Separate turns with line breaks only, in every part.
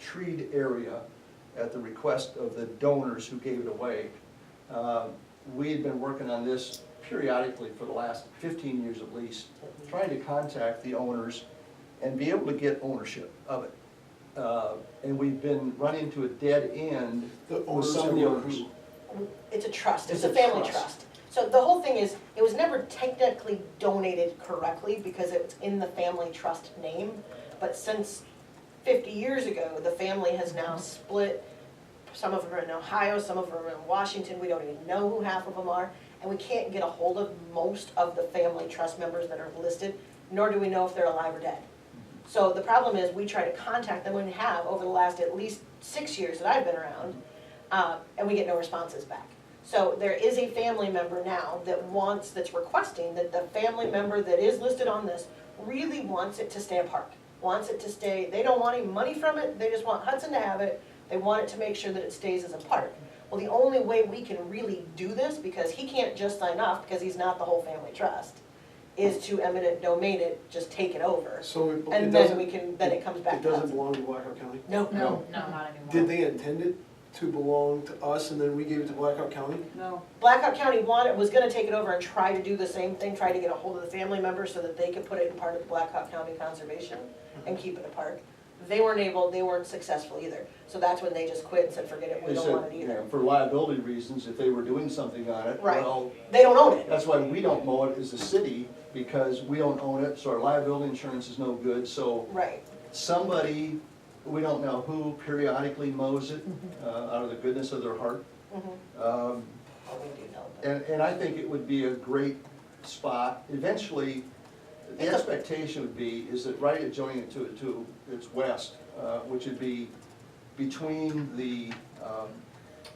treed area at the request of the donors who gave it away. Uh, We had been working on this periodically for the last fifteen years at least, trying to contact the owners and be able to get ownership of it. Uh, And we've been running to a dead end.
The- oh,
for
some
several
owners.
years.
It's a trust, it's
It's
a
a
family
trust.
trust. So the whole thing is, it was never technically donated correctly because it's in the family trust name. But since fifty years ago, the family has now
Mm-hmm.
split. Some of them are in Ohio, some of them are in Washington, we don't even know who half of them are. And we can't get a hold of most of the family trust members that are listed, nor do we know if they're alive or dead. So the problem is, we try to contact them and have over the last at least six years that I've been around, uh, and we get no responses back. So there is a family member now that wants, that's requesting that the family member that is listed on this really wants it to stay a park, wants it to stay, they don't want any money from it, they just want Hudson to have it, they want it to make sure that it stays as a park. Well, the only way we can really do this, because he can't just sign off, because he's not the whole family trust, is to eminent domain it, just take it over.
So it- it
And then we
doesn't,
can, then it comes back
it
to
doesn't
us.
belong to Blackhawk County?
No,
No, no, not anymore.
Did they intend it to belong to us and then we gave it to Blackhawk County?
No.
Blackhawk County wanted, was gonna take it over and try to do the same thing, try to get a hold of the family members so that they could put it in part of the Blackhawk County Conservation and keep it a park. They weren't able, they weren't successful either, so that's when they just quit and said, forget it, we
They
don't want
said,
it
you
either.
know, for liability reasons, if they were doing something on it,
Right.
well,
They don't own it,
that's why we don't mow it as a city, because we don't own it, so our liability insurance is no good, so
right,
somebody, we don't know who, periodically mows it, uh, out of the goodness of their heart.
mhm,
Um,
Oh, we do know, but-
And, and I think it would be a great spot, eventually, the
It's a-
expectation would be, is that right adjoining it to, to its west, uh, which would be between the, um,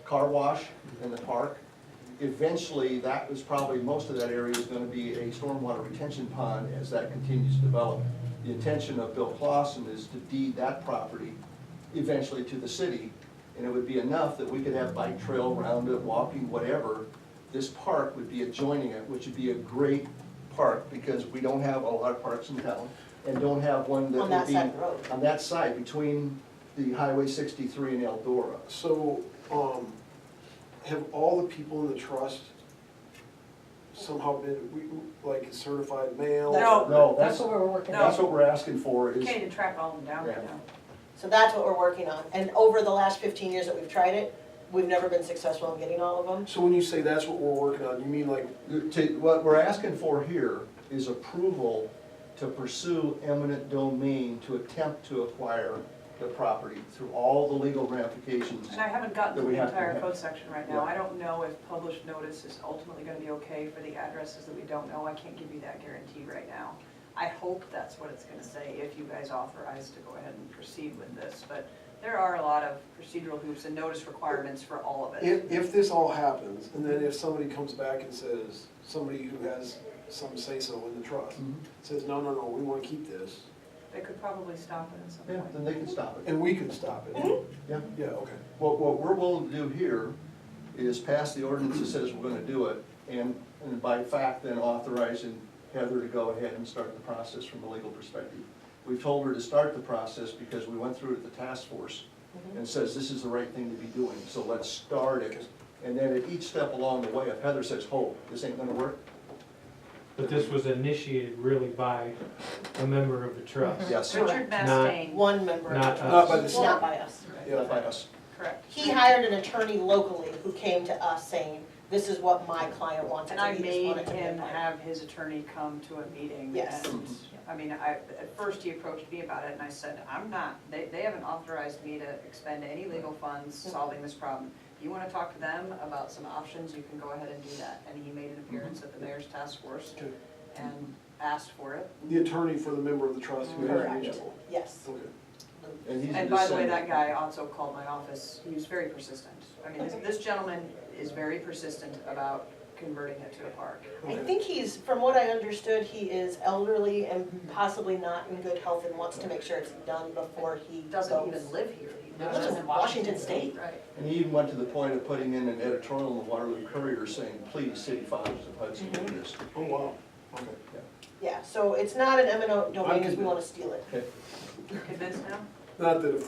car wash and the park, eventually, that was probably, most of that area is gonna be a stormwater retention pond as that continues to develop. The intention of Bill Clausen is to deed that property eventually to the city, and it would be enough that we could have bike trail around it, walking, whatever. This park would be adjoining it, which would be a great park, because we don't have a lot of parks in town, and don't have one that
on that
would be
side of the road.
on that side, between the Highway sixty-three and Eldora.
So, um, have all the people in the trust somehow been, we, like certified mail?
No.
No, that's,
That's what we're working
that's
on.
what we're asking for is,
Okay, to track all of them down right now.
So that's what we're working on, and over the last fifteen years that we've tried it, we've never been successful in getting all of them.
So when you say that's what we're working on, you mean like,
to- what we're asking for here is approval to pursue eminent domain to attempt to acquire the property through all the legal ramifications.
And I haven't gotten
That
to
we
the
have to
entire
have.
code section right now.
Yeah.
I don't know if published notice is ultimately gonna be okay for the addresses that we don't know. I can't give you that guarantee right now. I hope that's what it's gonna say, if you guys authorize to go ahead and proceed with this. But there are a lot of procedural hoops and notice requirements for all of it.
if, if this all happens, and then if somebody comes back and says, somebody who has some say-so in the trust,
Mhm.
says, no, no, no, we wanna keep this,
They could probably stop it at some
Yeah,
point.
then they can stop it.
and we can stop
Mm-hmm.
it.
Yeah.
Yeah, okay.
What, what we're willing to do here is pass the ordinance that says we're gonna do it, and, and by fact, then authorizing Heather to go ahead and start the process from a legal perspective. We've told her to start the process because we went through it at the task force,
Mm-hmm.
and says this is the right thing to be doing, so let's start it. And then at each step along the way, if Heather says, hold, this ain't gonna work,
But this was initiated really by a member of the
Mm-hmm.
trust.
yes,
Richard Mastain,
One member of
Not
the
us.
Not by the
trust, not by us.
not by us.
correct.
He hired an attorney locally who came to us saying, this is what my client wants,
And
and
I
he just
made
wanted to be a
him
part.
have his attorney come to a meeting.
Yes.
and,
Mhm.
I mean, I, at first he approached me about it and I said, I'm not, they, they haven't authorized me to expend any legal funds solving this problem. You wanna talk to them about some options, you can go ahead and do that. And he made
Mhm.
an appearance at the mayor's task force
Okay.
and asked for it.
The attorney for the member of the trust who has
Correct.
mutual.
Yes.
Okay.
And he's a
And by the way, that
descendant.
guy also called my office, he was very persistent. I mean, this, this gentleman is very persistent about converting it to a park.
I
Okay.
think he's, from what I understood, he is elderly and possibly not in good health and wants to make sure it's done before he
He
goes.
doesn't even live here. He
He lives in Washington State.
Right.
And he even went to the point of putting in an editorial in the Waterloo Courier saying, please, city fathers of Hudson, do
Mm-hmm.
this.
Oh, wow, okay.
Yeah, so it's not an eminent domain, because we want to steal it.
Okay.
You convinced now?
Not that it